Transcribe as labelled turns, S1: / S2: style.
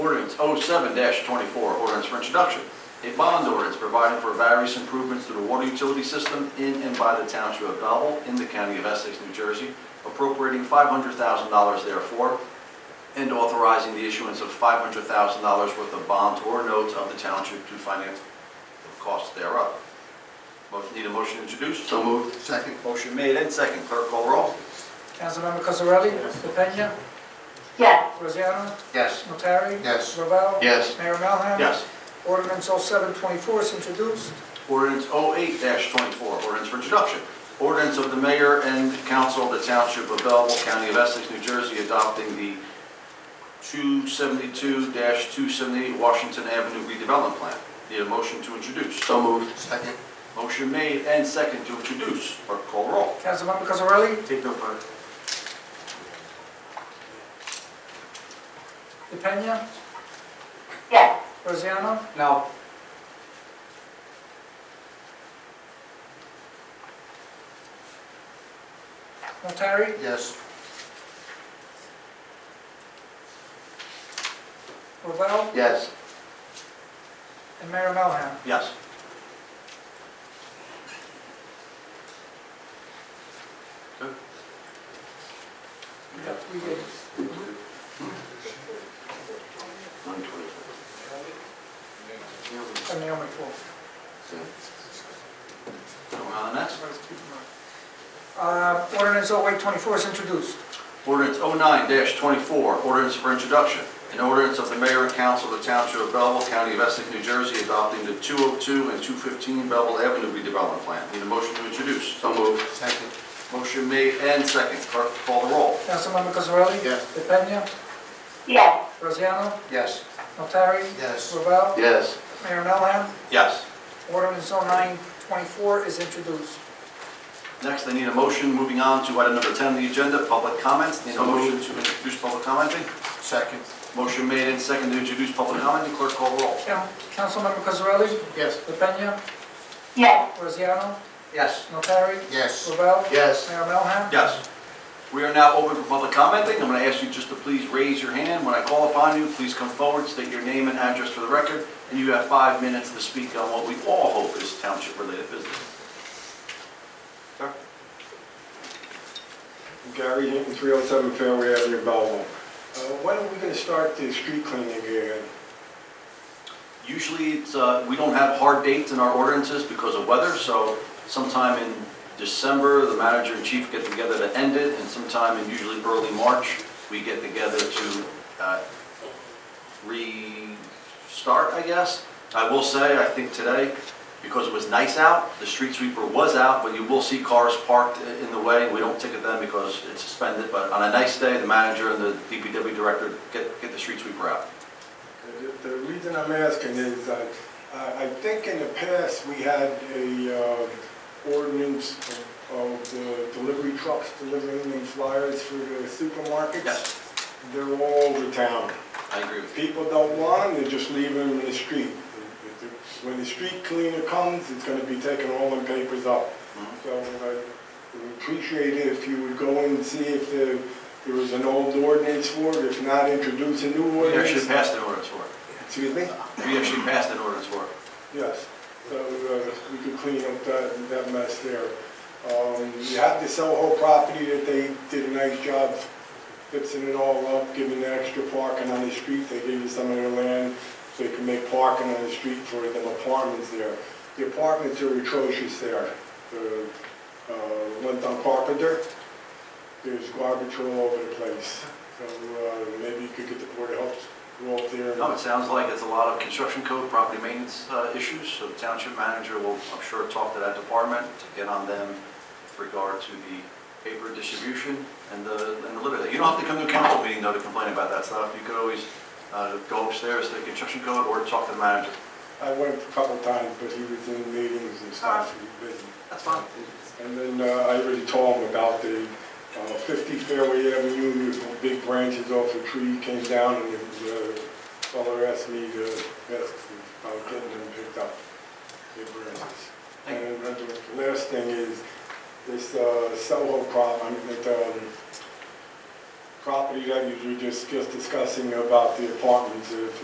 S1: ordinance 07-24, ordinance for introduction. A bond ordinance providing for various improvements to the water utility system in and by the township of Belleville in the county of Essex, New Jersey, appropriating $500,000 therefore, and authorizing the issuance of $500,000 worth of bonds or notes of the township to finance the costs thereof. Motion, need a motion to introduce? So moved.
S2: Second.
S1: Motion made and second. Clerk call roll.
S3: Councilmember Cosarelli? DePena?
S4: yes,
S3: Rosiano?
S2: Yes.
S3: Notari?
S2: Yes.
S3: Ravel?
S1: Yes.
S3: Mayor Melham?
S1: Yes.
S3: Ordinance 0724 is introduced.
S1: Ordinance 08-24, ordinance for introduction. Ordinance of the mayor and council of the township of Belleville, county of Essex, New Jersey, adopting the 272-278 Washington Avenue redevelopment plan. Need a motion to introduce. So moved.
S2: Second.
S1: Motion made and second to introduce. Clerk call roll.
S3: Councilmember Cosarelli?
S1: Take no part.
S3: DePena?
S4: yes,
S3: Rosiano?
S1: No.
S3: Notari?
S2: Yes.
S3: Ravel?
S1: Yes.
S3: And Mayor Melham?
S1: Yes. Good. We got
S3: We did.
S1: one twenty.
S3: And Naomi Ford.
S1: Going on to the next.
S3: Let's keep them on. Uh, Ordinance 0824 is introduced.
S1: Ordinance 09-24, ordinance for introduction. An ordinance of the mayor and council of the township of Belleville, county of Essex, New Jersey, adopting the 202 and 215 Belleville Avenue redevelopment plan. Need a motion to introduce. So moved.
S2: Second.
S1: Motion made and second. Clerk, call the roll.
S3: Councilmember Cosarelli?
S2: Yes.
S3: DePena?
S4: yes,
S3: Rosiano?
S2: Yes.
S3: Notari?
S2: Yes.
S3: Ravel?
S1: Yes.
S3: Mayor Melham?
S1: Yes.
S3: Ordinance 0924 is introduced.
S1: Next, I need a motion, moving on to item number 10 on the agenda, public comments. Need a motion to introduce public commenting.
S2: Second.
S1: Motion made and second to introduce public commenting. Clerk, call the roll.
S3: Count- Councilmember Cosarelli?
S2: Yes.
S3: DePena?
S4: yes,
S3: Rosiano?
S2: Yes.
S3: Notari?
S2: Yes.
S3: Ravel?
S2: Yes.
S3: Mayor Melham?
S1: Yes. We are now open for public commenting. I'm going to ask you just to please raise your hand. When I call upon you, please come forward, state your name and address for the record, and you have five minutes to speak on what we all hope is township-related business.
S5: Gary Hinton, 307 Fairway Avenue, Belleville. Uh, When are we going to start the street cleaning again?
S1: Usually, it's, uh, we don't have hard dates in our ordinances because of weather, so sometime in December, the manager and chief get together to end it, and sometime in usually early March, we get together to uh, restart, I guess. I will say, I think today, because it was nice out, the street sweeper was out, but you will see cars parked i- in the way. We don't ticket them because it's suspended, but on a nice day, the manager and the DPW director get, get the street sweeper out.
S5: The- The reason I'm asking is, uh, I I think in the past, we had a uh, ordinance of- of the delivery trucks delivering the flyers for the supermarkets.
S1: Yes.
S5: They're all over town.
S1: I agree with you.
S5: People don't want them, they just leave them in the street. When the street cleaner comes, it's gonna be taking all the papers up.
S1: Mhm.
S5: So I would appreciate it if you would go and see if there, there was an old ordinance for it, if not, introduce a new
S1: We actually
S5: ordinance.
S1: passed an ordinance for it.
S5: Excuse me?
S1: We actually passed an ordinance for it.
S5: Yes, so uh, we could clean up that, that mess there. Um, You have the Soho property that they did a nice job fixing it all up, giving the extra parking on the street. They gave you some of their land so you can make parking on the street for them apartments there. The apartments are atrocious there. The uh, ones on Carpenter, there's garbage all over the place. So uh, maybe you could get the board of health to go up there. and-
S1: No, it sounds like it's a lot of construction code, property maintenance uh, issues, so the township manager will, I'm sure, talk to that department to get on them with regard to the paper distribution and the, and the litter. You don't have to come to a council meeting though to complain about that stuff. You could always uh, go upstairs to the construction code or talk to the manager.
S5: I went a couple times, but he was in meetings and stuff, he was busy.
S1: That's fine.
S5: And then uh, I already told him about the uh, 50 Fairway Avenue, the big branches off a tree came down, and the fellow asked me to ask about getting them picked up, big branches.
S1: Thank
S5: And then the last thing is, this uh, Soho problem, that um, property that you were just just discussing about the apartments, uh, if